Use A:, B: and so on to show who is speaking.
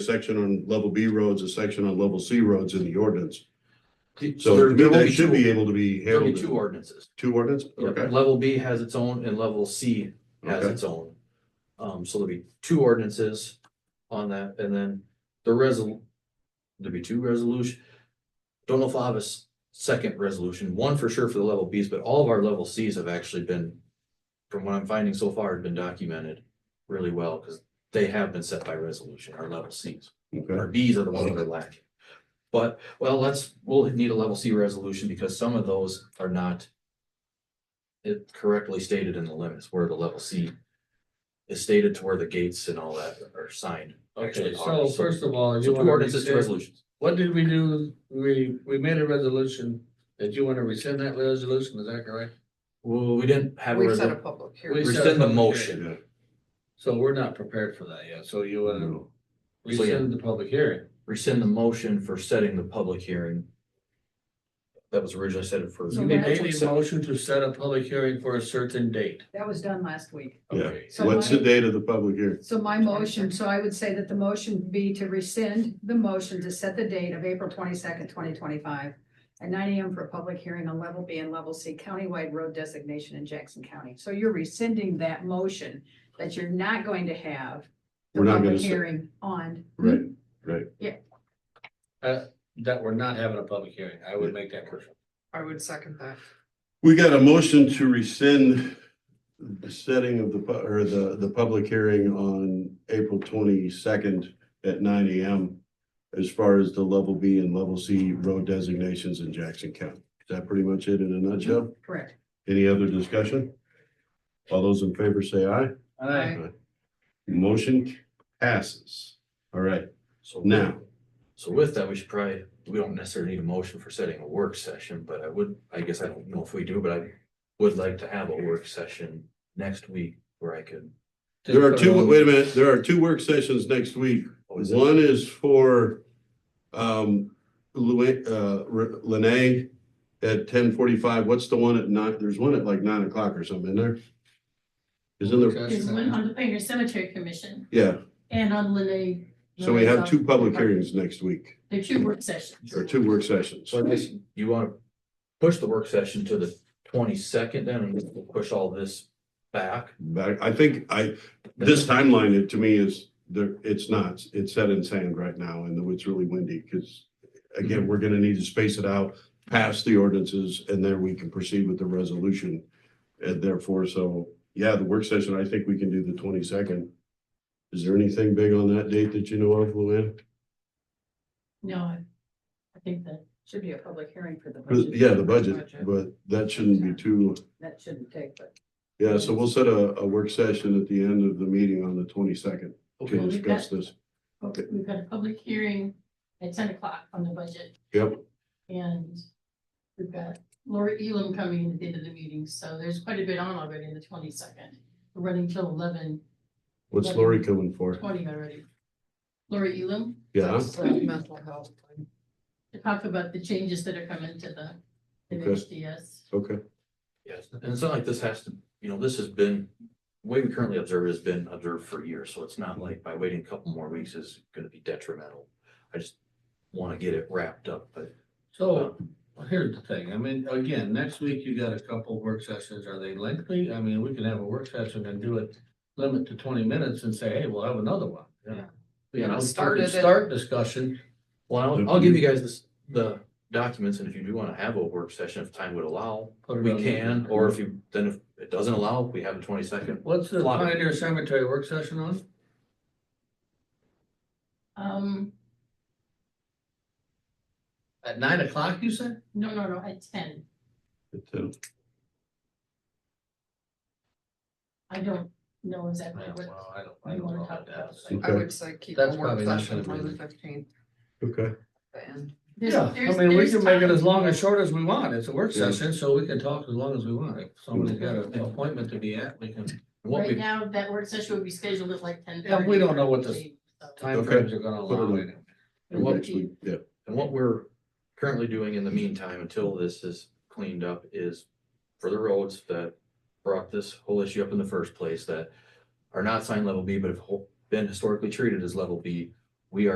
A: section on level B roads, a section on level C roads in the ordinance. So
B: there-
A: to me,
B: there will
A: that
B: be
A: should be
B: two-
A: able to be
B: There'll be
A: handled.
B: two
A: in
B: ordinances.
A: Two ordinance,
B: Yep,
A: okay,
B: Level B has its own and level C has
A: Okay.
B: its own. Um, so there'll be two ordinances on that and then the resol. There'll be two resolution. Don't know if I'll have a s- second resolution, one for sure for the level Bs, but all of our level Cs have actually been. From what I'm finding so far, have been documented really well because they have been set by resolution, our level Cs.
A: okay,
B: Our Ds are the ones that are lacking. But, well, let's, we'll need a level C resolution because some of those are not. It correctly stated in the limits where the level C. Is stated to where the gates and all that are signed.
C: Okay,
B: actually
C: so
B: are.
C: first of all,
B: So
C: you
B: two
C: want to
B: ordinances, two
C: resolution.
B: resolutions.
C: what did we do? We, we made a resolution that you want to rescind that resolution, is that correct?
B: Well, we didn't have a
D: We've set a
B: resolution.
D: public
C: We
D: hearing.
C: set a
B: Rescind the
C: public
B: motion.
A: yeah.
C: So we're not prepared for that yet, so you want to
A: no.
B: Mm-hmm. So, yeah.
C: rescind the public hearing.
B: Rescind the motion for setting the public hearing. That was originally set for.
C: You
D: So we
C: made
D: that's
C: a motion to set a public hearing for a certain date.
D: That was done last week.
A: Yeah.
C: Okay.
D: So
A: What's the
D: my,
A: date of the public hearing?
D: so my motion, so I would say that the motion would be to rescind the motion to set the date of April twenty-second, twenty twenty-five at nine AM for a public hearing on level B and level C countywide road designation in Jackson County. So you're rescinding that motion that you're not going to have the
A: We're not
D: public
A: gonna, se-
D: hearing on.
A: right,
C: Uh, That we're not having a public hearing, I would make that motion.
D: I would second that.
A: we got a motion to rescind the setting of the, pu- or the, the public hearing on April twenty-second at nine AM as far as the level B and level C road designations in Jackson County. Is that pretty much it in a nutshell?
D: Correct.
A: Any other discussion? All those in favor say aye.
D: Aye.
A: Motion passes. All right,
B: So
A: now,
B: So with that, we should probably, we don't necessarily need a motion for setting a work session, but I would, I guess I don't know if we do, but I would like to have a work session next week where I could.
C: Just
A: there are
C: put it
A: two,
C: on-
A: wait a minute, there are two work sessions next week.
B: oh, is it-
A: One is for um Lu- uh R- Lene at ten forty-five. What's the one at nine? There's one at like nine o'clock or something in there. Isn't there?
E: There's
C: Discussion.
E: one on the Pioneer Cemetery Commission
A: Yeah,
E: and on Lene.
A: so we have two public hearings next week,
E: There are two work sessions.
A: or two work sessions.
B: So I guess you want to push the work session to the twenty-second then and we'll push all this back.
A: But I think I, this timeline, it to me is, there, it's not, it's set in sand right now and it's really windy because again, we're gonna need to space it out, pass the ordinances and then we can proceed with the resolution. And therefore, so, yeah, the work session, I think we can do the twenty-second. Is there anything big on that date that you know of, Luann?
E: No, I I think that,
D: Should be a public hearing for the
A: 'Cause,
D: budget.
A: Uh, Yeah, the budget, but that shouldn't be too,
D: That shouldn't take, but
A: yeah, so we'll set a, a work session at the end of the meeting on the twenty-second
E: Okay.
A: to discuss this. Okay.
E: we've got a public hearing at ten o'clock on the budget
A: Yep.
E: and we've got Laura Elam coming in at the end of the meeting, so there's quite a bit on already in the twenty-second. We're running till eleven
A: What's Lori coming for?
E: twenty already. Laura Elam,
A: Yeah,
D: mental health.
E: to talk about the changes that are coming to the
A: Okay.
E: MHDS.
A: okay.
B: Yes, and it's not like this has to, you know, this has been, the way we currently observe it has been observed for years, so it's not like by waiting a couple more weeks is gonna be detrimental. I just want to get it wrapped up, but
C: So here's the thing, I mean, again, next week you got a couple work sessions, are they lengthy? I mean, we can have a work session and do it, limit to twenty minutes and say, hey, we'll have another one. you know?
E: Yeah.
C: You know,
D: Start
C: we
D: it
C: can
D: at-
C: start discussion,
B: Well, I'll, I'll give you guys this, the documents, and if you do wanna have a work session, if time would allow,
C: Put it
B: we
C: on the-
B: can, or if you, then if it doesn't allow, we have a twenty second.
C: what's the
B: Lot of-
C: Pioneer Cemetery work session on?
E: Um,
C: At nine o'clock, you said?
E: no, no, no, at ten.
A: It's, uh,
E: I don't know exactly
C: Yeah,
E: what.
C: Well, I don't, I don't know about that.
A: Okay.
F: I would say keep
C: That's
F: a work
C: probably not
F: session
C: gonna
F: on
C: be-
F: the fifteenth,
A: Okay,
F: the end.
E: There's-
C: Yeah, I
E: there's-
C: mean, we
E: there's
C: can make it
E: time.
C: as long as short as we want, it's a work
A: Yeah.
C: session, so we can talk as long as we want, if somebody's got an appointment to be at, we can.
B: What
E: Right
B: we,
E: now, that work session would be scheduled at like ten.
C: Yeah, we don't know what this- Time frames are gonna
A: Put it
C: allow
A: on.
C: it.
B: and what
A: next
B: we,
A: week, yeah,
B: and what we're currently doing in the meantime, until this is cleaned up, is for the roads that brought this whole issue up in the first place, that are not signed level B, but have ho- been historically treated as level B,